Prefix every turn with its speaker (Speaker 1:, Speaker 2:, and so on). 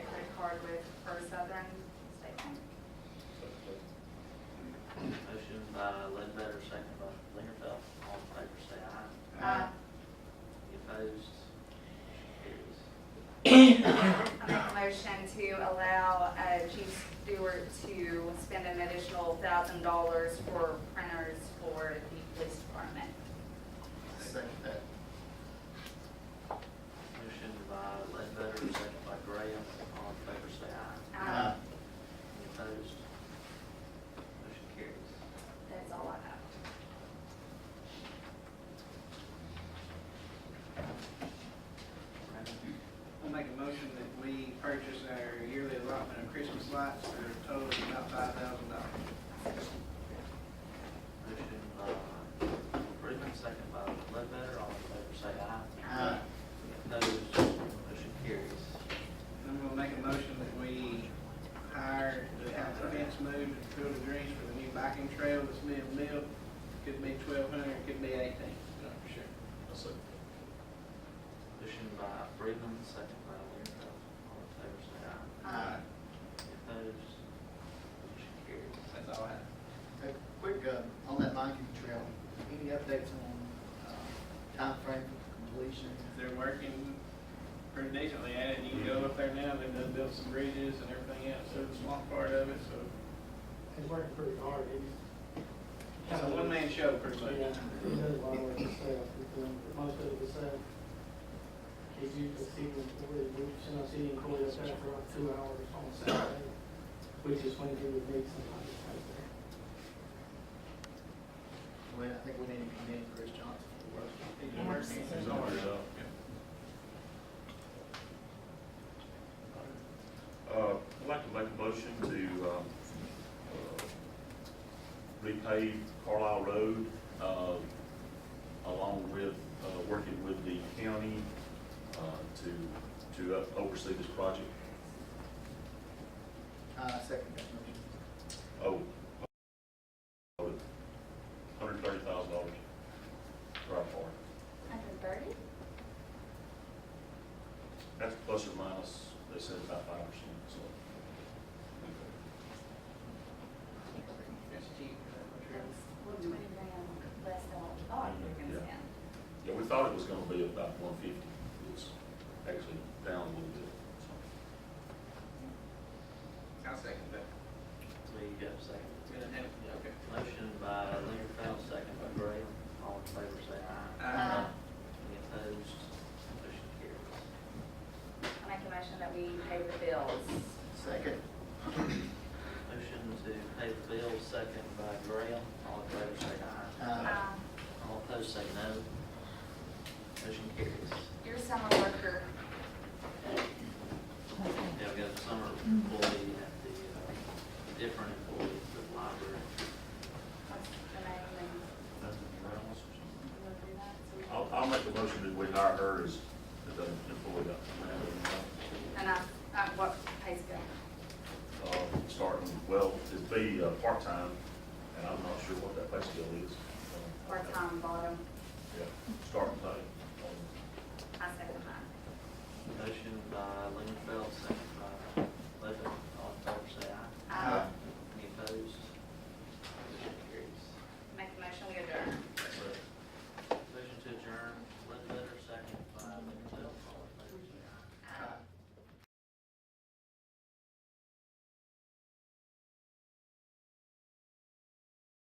Speaker 1: with First Southern State Bank.
Speaker 2: Motion by Ledbetter, second by Lingerfeld. All in favor, say aye.
Speaker 1: Uh,
Speaker 2: Any opposed? Motion carries.
Speaker 1: I make a motion to allow uh, Chief Stewart to spend an additional thousand dollars for printers for the police department.
Speaker 3: Second that.
Speaker 2: Motion by Ledbetter, second by Graham. All in favor, say aye.
Speaker 1: Um,
Speaker 2: Any opposed? Motion carries.
Speaker 1: That's all I have.
Speaker 2: Brandon?
Speaker 4: I'll make a motion that we purchase our yearly allotment of Christmas lights for a total of about five thousand dollars.
Speaker 2: Motion by Brickman, second by Ledbetter. All in favor, say aye.
Speaker 3: Aye.
Speaker 2: Any opposed? Motion carries.
Speaker 4: I'm gonna make a motion that we hire to have the fence moved and fill the greens for the new biking trail that's being built. Could be twelve hundred, could be eighteen, not for sure.
Speaker 3: I'll second
Speaker 2: Motion by Brickman, second by Lingerfeld. All in favor, say aye.
Speaker 3: that.
Speaker 2: Any opposed? Motion carries.
Speaker 4: That's all I have.
Speaker 3: Hey, Quick, uh, on that biking trail, any updates on uh, timeframe for completion?
Speaker 4: They're working pretty decently at it. You can go up there now, they've done built some bridges and everything else, so the small part of it, so
Speaker 5: He's working pretty hard, he's.
Speaker 4: it's a one-man show pretty much.
Speaker 5: Yeah, he does a lot of work himself, he's doing most of it himself. He's used to seeing Corey, we sent us seeing Corey up there for about two hours on Saturday, which is when he would meet somebody right there.
Speaker 3: Well, I think we need to commend Chris Johnson for working.
Speaker 4: He's been working.
Speaker 6: He's already up. Uh, I'd like to make a motion to, um, uh, repave Carlisle Road, uh, along with, uh, working with the county, uh, to, to oversee this project.
Speaker 3: Uh, second that motion.
Speaker 6: Oh, hundred thirty thousand dollars, right for it.
Speaker 1: Hundred thirty?
Speaker 6: That's plus or minus, they said about five percent, so.
Speaker 4: That's cheap.
Speaker 1: Well, twenty grand less than what we thought we were gonna
Speaker 6: Yeah.
Speaker 1: spend.
Speaker 6: Yeah, we thought it was gonna be about one fifty, it's actually down a little bit, so.
Speaker 4: I'll second that.
Speaker 2: So you got a second?
Speaker 4: It's gonna happen, okay.
Speaker 2: Motion by Lingerfeld, second by Graham. All in favor, say aye.
Speaker 4: Uh,
Speaker 2: Any opposed? Motion carries.
Speaker 1: I make a motion that we pay the bills.
Speaker 3: Second.
Speaker 2: Motion to pay the bill, second by Graham. All in favor, say aye.
Speaker 3: Uh,
Speaker 1: Um,
Speaker 2: All opposed, say no. Motion carries.
Speaker 1: Your summer worker,
Speaker 2: Yeah, we got a summer employee at the, uh, different employee at the library.
Speaker 1: what's the name and
Speaker 6: That's the Browns or something.
Speaker 1: you wanna do that? So we-
Speaker 6: I'll, I'll make a motion that we hire her as the employee, uh,
Speaker 1: And I, uh, what pays bill?
Speaker 6: uh, starting, well, it'd be uh, part-time, and I'm not sure what that pay scale is. Uh,
Speaker 1: Part-time um, bottom,
Speaker 6: Yeah, starting pay. Um,
Speaker 1: I second that.
Speaker 2: Motion by Lingerfeld, second
Speaker 1: Um,